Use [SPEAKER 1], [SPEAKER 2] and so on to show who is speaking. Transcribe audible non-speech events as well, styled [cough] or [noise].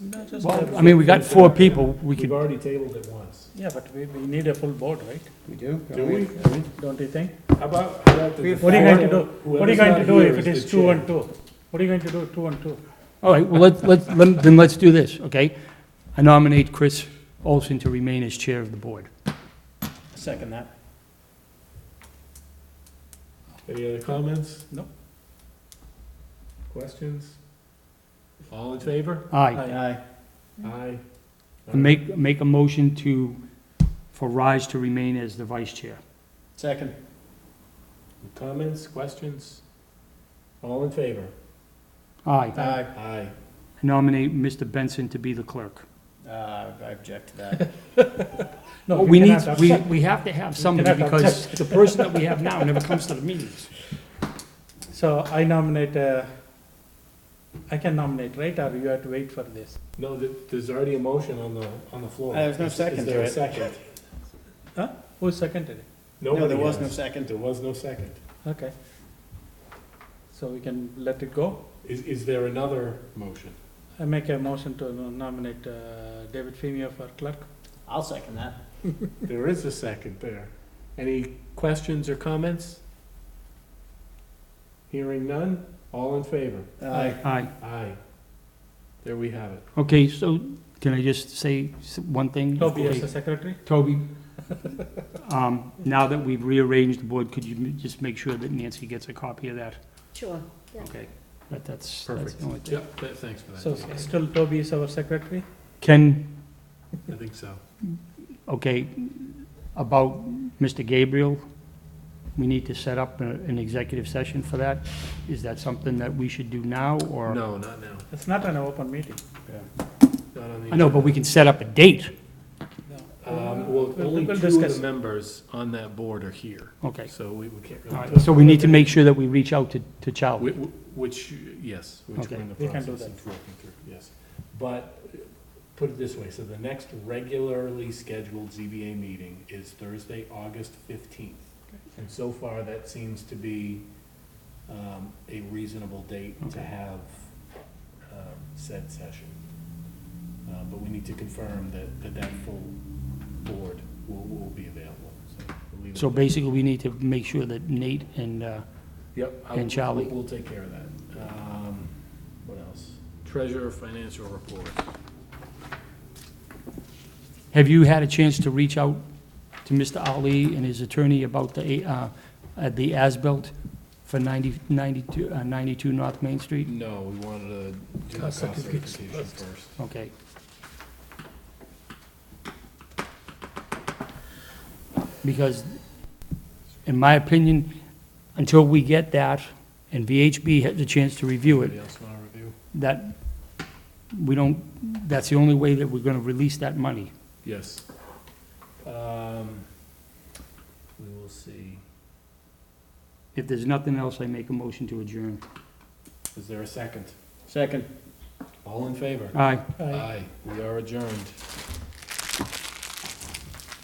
[SPEAKER 1] No, just
[SPEAKER 2] Well,
[SPEAKER 1] a-
[SPEAKER 2] I mean, we got four people, we
[SPEAKER 3] We've
[SPEAKER 2] could,
[SPEAKER 3] already tabled it once.
[SPEAKER 1] Yeah, but we, we need a full board, right?
[SPEAKER 4] We do?
[SPEAKER 3] Do we?
[SPEAKER 1] Don't you think?
[SPEAKER 3] How about, how about the.
[SPEAKER 1] What are you going to do? What are
[SPEAKER 3] Whoever's
[SPEAKER 1] you going to
[SPEAKER 3] not
[SPEAKER 1] do
[SPEAKER 3] here
[SPEAKER 1] if it
[SPEAKER 3] is
[SPEAKER 1] is
[SPEAKER 3] the
[SPEAKER 1] two
[SPEAKER 3] chair.
[SPEAKER 1] and two? What are you going to do, two and two?
[SPEAKER 2] all right, well, let's, let's, lem- then let's do this, okay? I nominate Chris Olson to remain as chair of the board.
[SPEAKER 1] Second that.
[SPEAKER 3] Any other comments?
[SPEAKER 1] No.
[SPEAKER 3] Questions? All in favor?
[SPEAKER 2] Aye.
[SPEAKER 3] Aye.
[SPEAKER 2] And make, make a motion to, for Raj to remain as the vice chair.
[SPEAKER 1] Second.
[SPEAKER 3] Comments, questions? All in favor?
[SPEAKER 2] Aye.
[SPEAKER 1] Aye.
[SPEAKER 3] Aye.
[SPEAKER 2] Nominate Mr. Benson to be the clerk.
[SPEAKER 1] Uh, I object to that. [laughs] No,
[SPEAKER 2] We need,
[SPEAKER 1] cannot
[SPEAKER 2] we,
[SPEAKER 1] upset.
[SPEAKER 2] we have to have
[SPEAKER 1] cannot
[SPEAKER 2] somebody because the person that we have now never comes to the meetings.
[SPEAKER 1] So I nominate, uh, I can nominate, right, or you have to wait for this?
[SPEAKER 3] No, th- there's already a motion on the, on the floor.
[SPEAKER 5] Uh, there's no
[SPEAKER 3] Is-
[SPEAKER 5] second to it.
[SPEAKER 3] Is there a second?
[SPEAKER 1] Who seconded it?
[SPEAKER 5] No, there
[SPEAKER 3] Nobody
[SPEAKER 5] was no
[SPEAKER 3] has.
[SPEAKER 5] second.
[SPEAKER 3] There was no second.
[SPEAKER 1] Okay. So we can let it go?
[SPEAKER 3] Is, is there another motion?
[SPEAKER 1] I make a motion to nominate uh, David Femio for clerk.
[SPEAKER 5] I'll second that.
[SPEAKER 3] There is a second there. Any questions or comments? Hearing none, all in favor?
[SPEAKER 5] Aye.
[SPEAKER 2] Aye.
[SPEAKER 3] Aye. There we have it.
[SPEAKER 2] Okay, so can I just say s- one thing?
[SPEAKER 1] Toby as
[SPEAKER 2] Okay.
[SPEAKER 1] the secretary?
[SPEAKER 2] Toby, [laughs] um, now that we've rearranged the board, could you m- just make sure that Nancy gets a copy of that?
[SPEAKER 6] Sure. Yeah.
[SPEAKER 2] Okay. That, that's, that's
[SPEAKER 3] Perfect.
[SPEAKER 2] the only thing.
[SPEAKER 3] Yep, th- thanks for
[SPEAKER 1] So
[SPEAKER 3] that.
[SPEAKER 1] s- still Toby is our secretary?
[SPEAKER 2] Ken,
[SPEAKER 3] I think so.
[SPEAKER 2] okay, about Mr. Gabriel, we need to set up a- an executive session for that. Is that something that we should do now, or?
[SPEAKER 3] No, not now.
[SPEAKER 1] It's not an open meeting.
[SPEAKER 3] Not on the.
[SPEAKER 2] I know, but we can set up a date.
[SPEAKER 3] Um, well,
[SPEAKER 1] We'll-
[SPEAKER 3] only
[SPEAKER 1] we'll
[SPEAKER 3] two of
[SPEAKER 1] discuss.
[SPEAKER 3] the members on that board are here,
[SPEAKER 2] Okay.
[SPEAKER 3] so we we can't.
[SPEAKER 2] All
[SPEAKER 3] really
[SPEAKER 2] right, so we need to make sure that we reach out to, to
[SPEAKER 3] Whi-
[SPEAKER 2] Charlie.
[SPEAKER 3] wh- Which, yes, which we're
[SPEAKER 2] Okay.
[SPEAKER 3] in the
[SPEAKER 1] We can
[SPEAKER 3] process
[SPEAKER 1] do that.
[SPEAKER 3] of working through, yes. But, uh, put it this way, so the next regularly scheduled ZBA meeting is Thursday, August fifteenth. And so far, that seems to be um, a reasonable date to
[SPEAKER 2] Okay.
[SPEAKER 3] have um, said session. Uh, But we need to confirm that, that that full board will, will be available, so. we'll leave it
[SPEAKER 2] So
[SPEAKER 3] at that.
[SPEAKER 2] basically, we need to make sure that Nate and, uh,
[SPEAKER 3] Yep. I
[SPEAKER 2] And
[SPEAKER 3] will-
[SPEAKER 2] Charlie.
[SPEAKER 3] We'll take care of that. Um, What else? Treasurer financial report.
[SPEAKER 2] Have you had a chance to reach out to Mr. Ali and his attorney about the, uh, uh, the as-built for 90 92 uh, 92 North Main Street?
[SPEAKER 3] No, we wanted to do the
[SPEAKER 1] Cost
[SPEAKER 3] cost
[SPEAKER 1] certificates
[SPEAKER 3] certification
[SPEAKER 1] first.
[SPEAKER 3] first.
[SPEAKER 2] Okay. Because, in my opinion, until we get that, and VHB has a chance to review it,
[SPEAKER 3] Anybody else want to review?
[SPEAKER 2] that, we don't, that's the only way that we're gonna release that money.
[SPEAKER 3] Yes. Um, We will see.
[SPEAKER 2] If there's nothing else, I make a motion to adjourn.
[SPEAKER 3] Is there a second?
[SPEAKER 5] Second.
[SPEAKER 3] All in favor?
[SPEAKER 2] Aye.
[SPEAKER 1] Aye.
[SPEAKER 3] We are adjourned.